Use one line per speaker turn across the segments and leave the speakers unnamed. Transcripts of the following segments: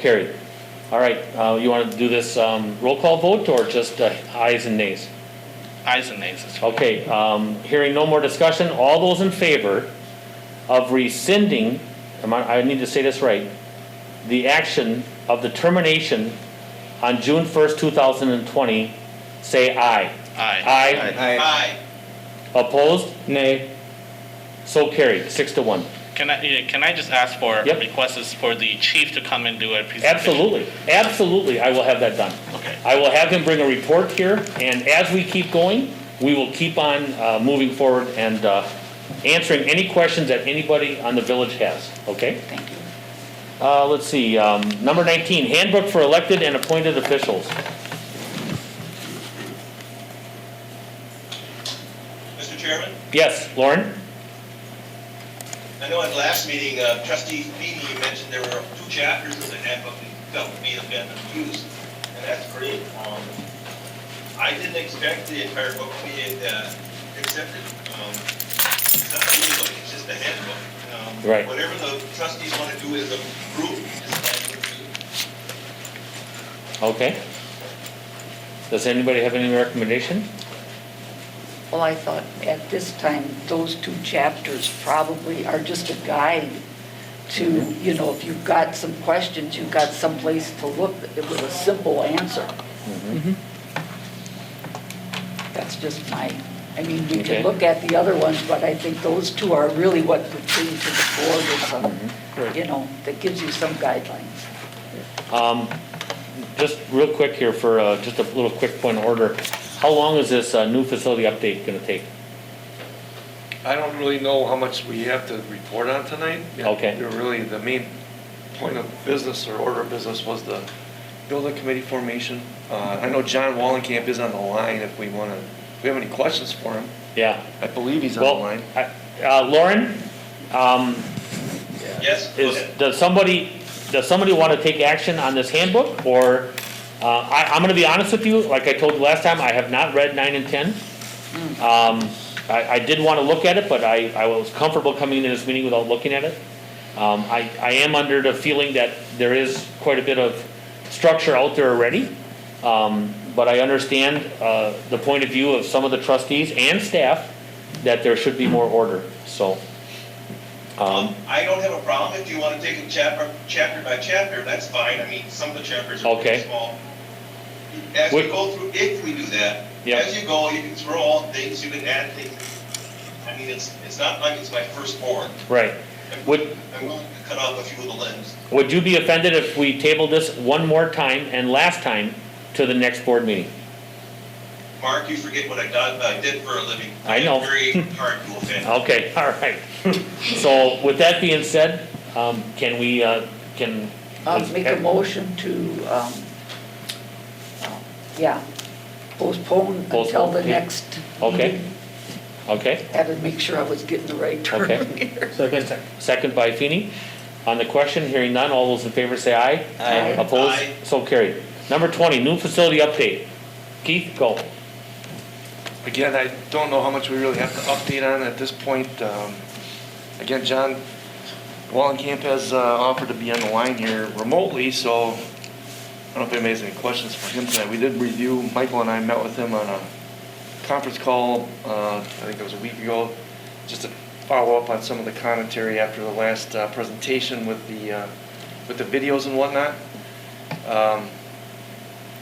Carried. All right, uh, you want to do this um, roll call vote or just uh, ayes and nays?
Ayes and nays. this week.
Okay, um, hearing no more discussion, all those in favor of rescinding, am I I need to say this right, the action of the termination on June 1st, 2020, say aye.
Aye.
Aye.
Aye.
Opposed?
Nay.
So carried, six to one.
Can I, yeah, can I just ask for
Yep.
requests for the chief to come and do a presentation?
Absolutely, absolutely, I will have that done.
Okay.
I will have him bring a report here, and as we keep going, we will keep on uh, moving forward and uh, answering any questions that anybody on the village has, okay? Thank you. Uh, let's see, um, number 19, handbook for elected and appointed officials.
Mr. Chairman,
Yes, Lauren?
I know at last meeting, uh, trustee Feeny, you mentioned there were two chapters of the handbook that felt may have been abused, and that's great. Um, I didn't expect the entire book to be uh, accepted. Um, It's not really, it's just a handbook. Um,
Right.
Whatever the trustees want to do as a group is fine with me.
Okay. Does anybody have any recommendation?
Well, I thought at this time, those two chapters probably are just a guide to, you know, if you've got some questions, you've got someplace to look with a simple answer. That's just my, I mean, you
Okay.
can look at the other ones, but I think those two are really what pertain to the board or some, you know, that gives you some guidelines.
Um, Just real quick here for, uh, just a little quick point of order. How long is this uh, new facility update going to take?
I don't really know how much we have to report on tonight.
Okay.
They're Really, the main point of business or order of business was the building committee formation. Uh, I know John Wallenkamp is on the line if we want to, if we have any questions for him.
Yeah.
I believe he's on the
Well,
line.
I- uh, Lauren, um,
Yes? go
is,
ahead.
does somebody, does somebody want to take action on this handbook? Or, uh, I, I'm going to be honest with you, like I told you last time, I have not read nine and 10. Um, I, I did want to look at it, but I, I was comfortable coming into this meeting without looking at it. Um, I, I am under the feeling that there is quite a bit of structure out there already. Um, but I understand, uh, the point of view of some of the trustees and staff that there should be more order, so. Um,
Um, I don't have a problem if you want to take it chapter, chapter by chapter, that's fine, I mean, some of the chapters are
Okay.
pretty small. As we
Would-
go through, if we do that,
Yeah.
as you go, you can throw all things, you can add things. I mean, it's, it's not like it's my first board.
right.
I'm-
Would-
I'm willing to cut off a few of the limbs.
Would you be offended if we tabled this one more time and last time to the next board meeting?
Mark, you forget what I done, I did for a living.
I know.
am Very hard to offend.
Okay, all right. So with that being said, um, can we, uh, can?
I'll make a motion to, um, uh, yeah, postpone until
Postpone,
the
yeah.
next.
Okay,
meeting.
okay.
Had to make sure I was getting the right
Okay.
term here.
Second. Second by Feeny. On the question, hearing none, all those in favor say aye.
Aye.
Opposed?
Aye.
So carried. Number twenty, new facility update. Keith, go.
Again, I don't know how much we really have to update on at this point. Um, Again, John Wallenkamp has uh, offered to be on the line here remotely, so I don't know if anybody has any questions for him tonight. We did review, Michael and I met with him on a conference call, uh, I think it was a week ago, just to follow up on some of the commentary after the last uh, presentation with the, uh, with the videos and whatnot. Um,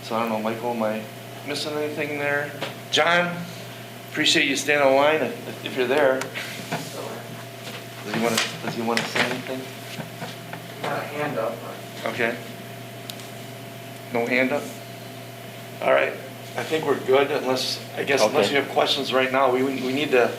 so I don't know, Michael, am I missing anything there? John, appreciate you staying online if if you're there. Does he want to, does he want to say anything? Not a hand up. Okay. No hand up? All right, I think we're good unless, I guess unless
Okay.
you have questions right now, we, we need to,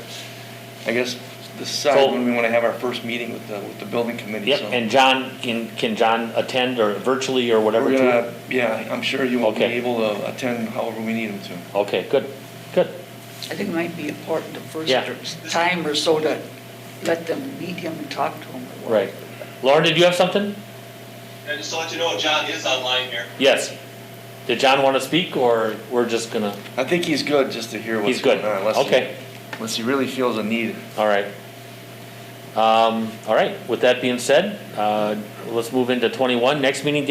I guess, decide
So-
when we want to have our first meeting with the, with the building committee,
Yep,
so.
and John, can, can John attend or virtually or whatever?
We're
too?
gonna, yeah, I'm sure you will be
Okay.
able to attend however we need him to.
Okay, good, good.
I think it might be important the first
Yeah.
time or so to let them meet him and talk to him. or
Right. Lauren, did you have something?
And just to let you know, John is online here.
Yes. Did John want to speak, or we're just gonna,
I think he's good just to hear what's
he's good?
going on. unless he-
Okay,
Unless he really feels a need.
all right. Um, all right, with that being said, uh, let's move into twenty-one, next meeting